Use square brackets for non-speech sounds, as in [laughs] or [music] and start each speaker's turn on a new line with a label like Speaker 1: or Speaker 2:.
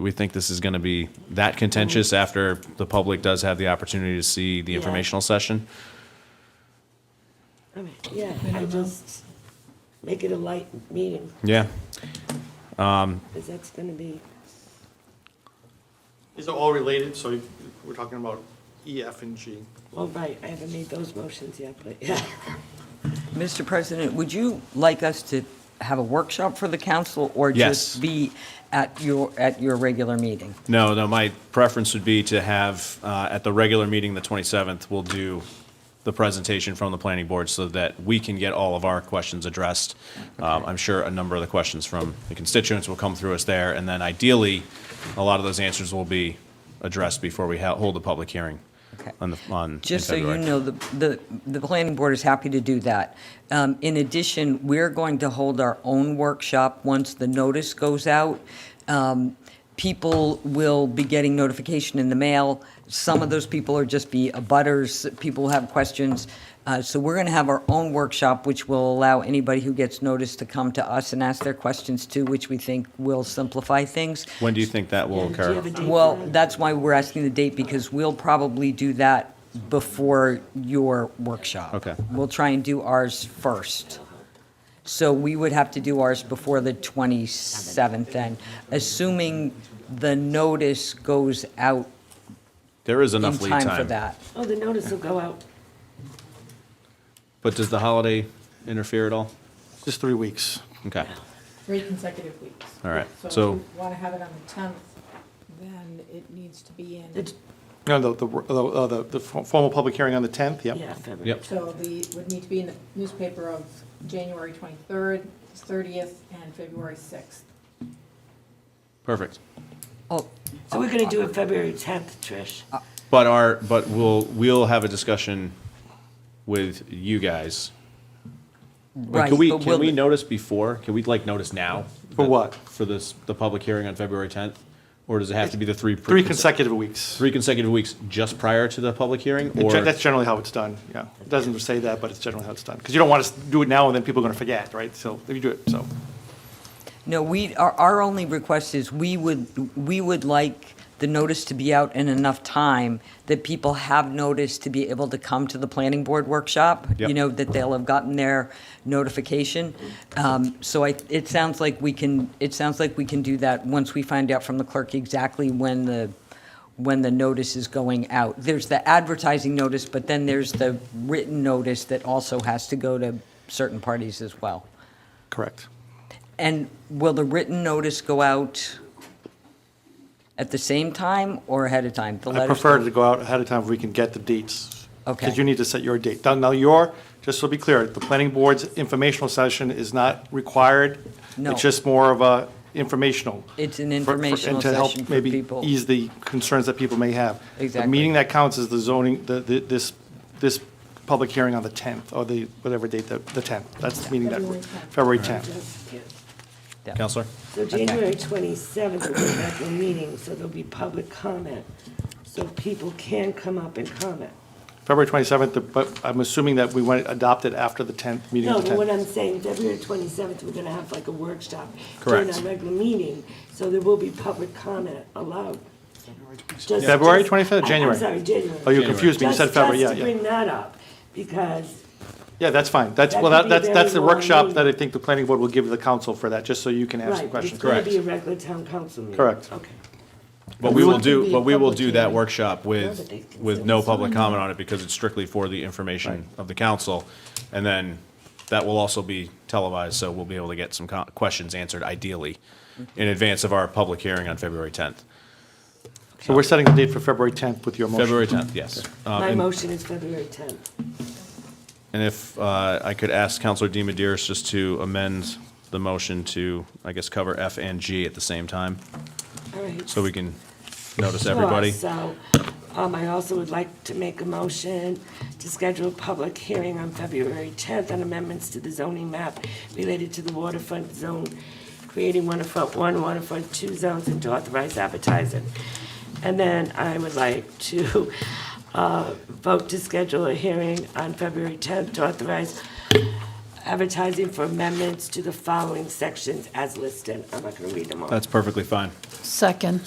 Speaker 1: we think this is going to be that contentious
Speaker 2: Mm-hmm.
Speaker 1: after the public does have the opportunity to see the
Speaker 3: Yeah.
Speaker 1: informational session.
Speaker 3: I mean, Yeah, I just, make it a light meeting,
Speaker 1: Yeah,
Speaker 3: because that's gonna be,
Speaker 4: These are all related, so we're talking about E, F, and G.
Speaker 3: well, right, I haven't made those motions yet, but yeah.
Speaker 2: Mr. President, would you like us to have a workshop for the council or
Speaker 1: Yes.
Speaker 2: just be at your, at your regular meeting?
Speaker 1: no, no, my preference would be to have, uh, at the regular meeting, the 27th, we'll do the presentation from the planning board so that we can get all of our questions addressed. Um, I'm sure a number of the questions from the constituents will come through us there, and then ideally, a lot of those answers will be addressed before we ha- hold a public hearing
Speaker 2: Okay.
Speaker 1: on, the- on, in
Speaker 2: Just so you
Speaker 1: February.
Speaker 2: know, the, the, the planning board is happy to do that. Um, in addition, we're going to hold our own workshop once the notice goes out. Um, people will be getting notification in the mail. Some of those people are just be abutters, people have questions. Uh, so we're going to have our own workshop, which will allow anybody who gets notice to come to us and ask their questions too, which we think will simplify things.
Speaker 1: When do you think that will
Speaker 3: Yeah, do you
Speaker 1: occur?
Speaker 3: have a date
Speaker 2: Well,
Speaker 3: for that?
Speaker 2: that's why we're asking the date, because we'll probably do that before your workshop.
Speaker 1: Okay.
Speaker 2: We'll try and do ours first. So we would have to do ours before the 27th, and assuming the notice goes out
Speaker 1: There is
Speaker 2: in
Speaker 1: enough lead time.
Speaker 2: time for that.
Speaker 3: Oh, the notice will go out,
Speaker 1: But does the holiday interfere at all?
Speaker 4: Just three weeks.
Speaker 1: Okay,
Speaker 5: Three consecutive weeks.
Speaker 1: All right, so-
Speaker 5: So if you want to have it on the 10th, then it needs to be in,
Speaker 3: It's-
Speaker 4: No, the, the, uh, the, the for- formal public hearing on the 10th, yep.
Speaker 3: yeah, February.
Speaker 1: yep,
Speaker 5: so the, would need to be in the newspaper of January 23rd, 30th, and February 6th.
Speaker 1: perfect.
Speaker 2: Oh,
Speaker 3: So we're gonna do it February tenth, Trish.
Speaker 1: But our, but we'll, we'll have a discussion with you guys. But
Speaker 2: right.
Speaker 1: Can we,
Speaker 2: but
Speaker 1: can
Speaker 2: will-
Speaker 1: we notice before? Can we like notice now?
Speaker 4: For what?
Speaker 1: For this, the public hearing on February tenth? Or does it have to be the three? pre-
Speaker 4: Three consecutive weeks.
Speaker 1: Three consecutive weeks just prior to the public hearing
Speaker 4: It
Speaker 1: or?
Speaker 4: gen- That's generally how it's done, yeah. It doesn't say that, but it's generally how it's done. Because you don't want to do it now and then people are going to forget, right? So if you do it, so.
Speaker 2: No, we, our, our only request is we would, we would like the notice to be out in enough time that people have notice to be able to come to the planning board workshop.
Speaker 1: Yep.
Speaker 2: You know, that they'll have gotten their notification. Um, so I, it sounds like we can, it sounds like we can do that once we find out from the clerk exactly when the, when the notice is going out. There's the advertising notice, but then there's the written notice that also has to go to certain parties as well.
Speaker 4: Correct.
Speaker 2: And will the written notice go out at the same time or ahead of time? The
Speaker 4: I
Speaker 2: letters
Speaker 4: prefer
Speaker 2: go-
Speaker 4: to go out ahead of time if we can get the dates.
Speaker 2: Okay.
Speaker 4: Because you need to set your date. Now- Now, your, just to be clear, the planning board's informational session is not required.
Speaker 2: No.
Speaker 4: It's just more of a informational.
Speaker 2: It's an
Speaker 4: for- for- and
Speaker 2: informational
Speaker 4: to help
Speaker 2: session for
Speaker 4: maybe
Speaker 2: people.
Speaker 4: Ease the concerns that people may have. The
Speaker 2: Exactly.
Speaker 4: meeting that counts is the zoning, the, the- this, this public hearing on the 10th, or the, whatever date, the the 10th. That's the meeting that, February
Speaker 5: February 10th.
Speaker 4: 10th.
Speaker 3: Yeah.
Speaker 2: Yeah.
Speaker 1: Counselor?
Speaker 3: So January twenty-seventh will be back in meeting, so there'll be public comment, so people can come up and comment.
Speaker 4: February 27th, the- but I'm assuming that we want to adopt it after the 10th, meeting
Speaker 3: No,
Speaker 4: of the
Speaker 3: but
Speaker 4: 10th.
Speaker 3: what I'm saying, February twenty-seventh, we're gonna have like a workshop.
Speaker 1: Correct.
Speaker 3: During our regular meeting, so there will be public comment allowed. Just-
Speaker 4: February
Speaker 3: just-
Speaker 4: 25th,
Speaker 3: I-
Speaker 4: January?
Speaker 3: I'm sorry, January.
Speaker 4: Oh, you confused me. You
Speaker 3: Just-
Speaker 4: said February, yeah,
Speaker 3: Just to
Speaker 4: yeah.
Speaker 3: bring that up, because
Speaker 4: Yeah, that's fine. That's,
Speaker 3: That
Speaker 4: well,
Speaker 3: could
Speaker 4: that-
Speaker 3: be
Speaker 4: that's,
Speaker 3: very
Speaker 4: that's the
Speaker 3: long
Speaker 4: workshop that I
Speaker 3: meeting.
Speaker 4: think the planning board will give the council for that, just so you can ask some
Speaker 3: Right, it's
Speaker 4: questions.
Speaker 3: gonna
Speaker 1: Correct.
Speaker 3: be a regular town council meeting.
Speaker 4: Correct.
Speaker 3: Okay.
Speaker 1: But we will
Speaker 5: It
Speaker 1: do,
Speaker 5: can
Speaker 1: but
Speaker 5: be
Speaker 1: we will
Speaker 5: public
Speaker 1: do that
Speaker 5: hearing.
Speaker 1: workshop with,
Speaker 3: Nobody can
Speaker 1: with
Speaker 3: say
Speaker 1: no
Speaker 3: it's
Speaker 1: public comment on it because it's strictly for the information of the council. And then that will also be televised, so we'll be able to get some co- questions answered ideally in advance of our public hearing on February 10th.
Speaker 4: So we're setting the date for February 10th with your motion.
Speaker 1: February 10th, yes. Um,
Speaker 3: My
Speaker 1: and-
Speaker 3: motion is February tenth.
Speaker 1: And if uh, I could ask Counselor DiMederos just to amend the motion to, I guess, cover F and G at the same time,
Speaker 3: All right.
Speaker 1: so we can notice everybody.
Speaker 3: Sure. So, um, I also would like to make a motion to schedule a public hearing on February tenth on amendments to the zoning map related to the waterfront zone, creating waterfront one, waterfront two zones, and to authorize advertising. And then I would like to, [laughs] uh, vote to schedule a hearing on February tenth to authorize advertising for amendments to the following sections as listed. I'm not gonna read them all.
Speaker 1: That's perfectly fine.
Speaker 6: Second.